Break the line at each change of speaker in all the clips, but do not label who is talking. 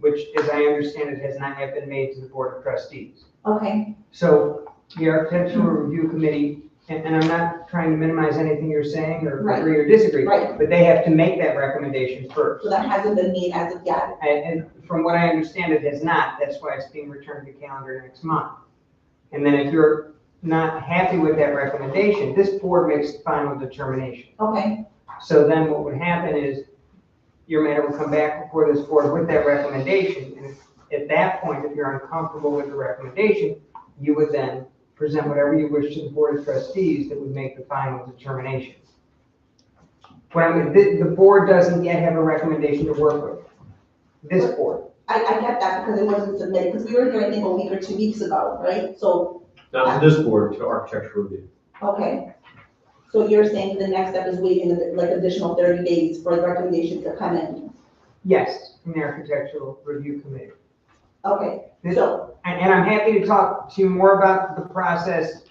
which, as I understand it, has not yet been made to the Board of Trustees.
Okay,
So the Architectural Review Committee, and, and I'm not trying to minimize anything you're saying or
Right.
agree or disagree,
Right.
but they have to make that recommendation first.
so that hasn't been made as of yet.
And, and from what I understand, it has not, that's why it's being returned to calendar next month. And then if you're not happy with that recommendation, this board makes the final determination.
Okay,
So then what would happen is your matter would come back before this board with that recommendation. And at that point, if you're uncomfortable with the recommendation, you would then present whatever you wish to the board of trustees that would make the final determination. What I mean, the, the board doesn't yet have a recommendation to work with, this board.
I, I get that because it wasn't submitted, because we were here, I think, a week or two weeks ago, right? So,
Not to this board, to architectural review.
okay. So you're saying the next step is waiting a bit- like additional thirty days for the recommendations to come in?
Yes, from the architectural review committee.
Okay,
This-
so
And, and I'm happy to talk to you more about the process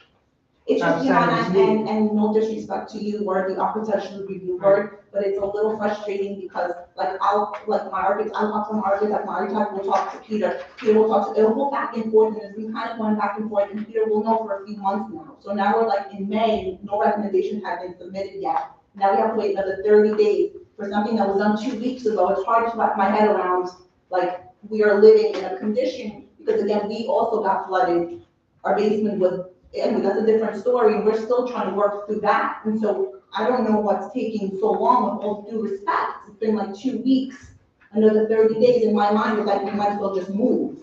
it's just, you know,
Outside
and,
of me.
and- and no disrespect to you or the architectural review board, but it's a little frustrating because like I'll, like my architect, I'll talk to my architect, my architect will talk to Peter, Peter will talk to, it'll go back and forth and it's been kind of going back and forth and Peter will know for a few months now. So now we're like in May, no recommendation had been submitted yet. Now we have to wait another thirty days for something that was done two weeks ago. It's hard to wrap my head around, like, we are living in a condition, because again, we also got flooded. Our basement was I mean, that's a different story, and we're still trying to work through that, and so I don't know what's taking so long, with all due respect, it's been like two weeks, another thirty days, in my mind, it's like, we might as well just move.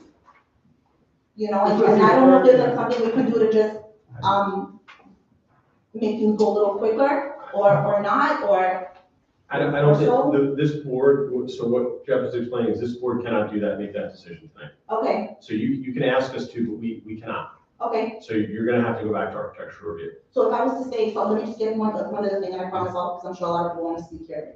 You know, and and I don't know if there's like something we can do to just, um, make things go a little quicker, or, or not, or,
I don't, I don't
So-
think, the- this board, so what Jeff is explaining is this board cannot do that, make that decision tonight.
okay,
So you, you can ask us to, but we, we cannot.
okay,
So you're gonna have to go back to architectural review.
So if I was to say, so let me just give one, one other thing, and I promise I'll, because I'm sure a lot of people want to speak here.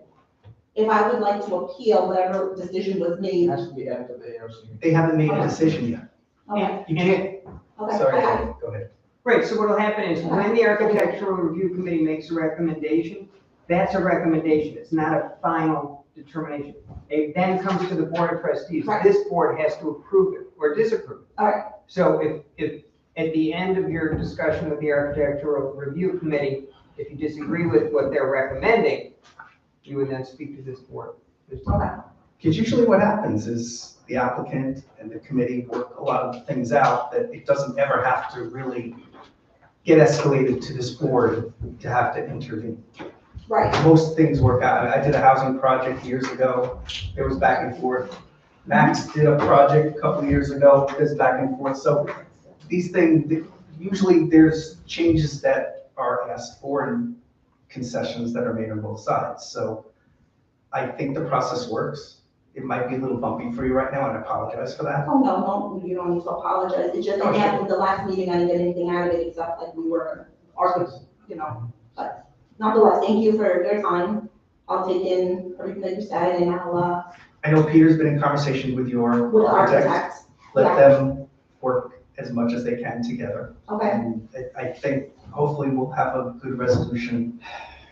If I would like to appeal whatever decision was made,
Has to be after the ARC.
They haven't made a decision yet.
okay,
and it
okay,
Sorry,
Oh. I- I-
go ahead.
Right, so what'll happen is when the architectural review committee makes a recommendation, that's a recommendation, it's not a final determination. It then comes to the board of trustees,
Right.
this board has to approve it or disapprove. it.
Alright.
So if, if, at the end of your discussion with the architectural review committee, if you disagree with what they're recommending, you would then speak to this board.
okay,
Because usually what happens is the applicant and the committee work a lot of things out that it doesn't ever have to really get escalated to this board to have to intervene.
right,
Most things work out. I did a housing project years ago. There was back and forth. Max did a project a couple of years ago. There's back and forth. So these things, usually there's changes that are asked for and concessions that are made on both sides. So I think the process works. It might be a little bumpy for you right now, and I apologize for that.
oh, no, no, you don't need to apologize, it's just,
Oh,
that
sure.
after the last meeting, I didn't get anything out of it, except like we were, or, you know, but nonetheless, thank you for your time, I'll take in everything that you said, and I'll, uh,
I know Peter's been in conversation with your
with the
architect.
architect,
Let
yeah.
them work as much as they can together.
okay,
And I- I think hopefully we'll have a good resolution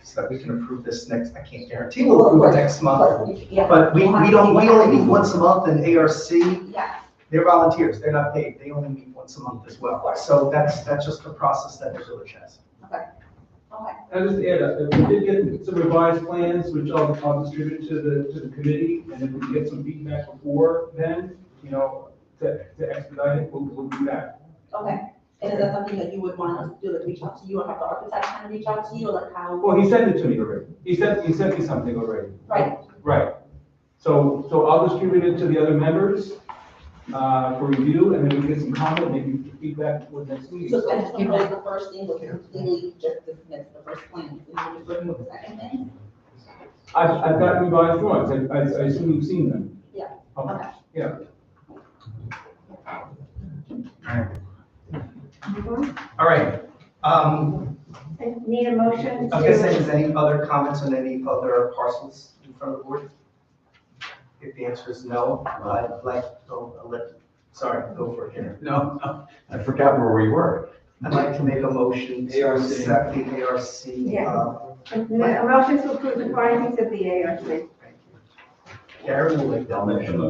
so that we can approve this next, I can't guarantee we'll approve it next month.
but, yeah.
But we, we don't, we only meet once a month and ARC,
Yeah,
they're volunteers, they're not paid, they only meet once a month as well. So that's, that's just the process that the village has.
okay,
I'll just add, uh, if we did get some revised plans, which I'll, I'll distribute to the, to the committee, and if we can get some feedback before then, you know, to, to expedite it, we'll, we'll do that.
okay. And is that something that you would want us to do, like reach out to you or have the architect kind of reach out to you, or like how?
Well, he sent it to me already. He sent, he sent me something already.
Right,
Right. So, so I'll distribute it to the other members, uh, for review, and then we can get some comment, maybe feedback with next week.
so I just want to know if the first thing was completely just dismiss the first plan, and then just remove the second thing.
I've, I've got revised drawings. I, I I assume you've seen them.
Yeah.
Okay.
Okay,
Yeah.
All right, um,
I Need a motion
I was gonna say,
to,
is any other comments on any other parcels in front of the board? If the answer is no, I'd like, oh, I'll let- sorry, go for it here.
No, no, I forgot where we were.
I'd like to make a motion to
ARC.
accept the ARC.
Yeah.
uh,
a motion to approve the findings of the ARC.
Karen will make that
I'll make the
motion.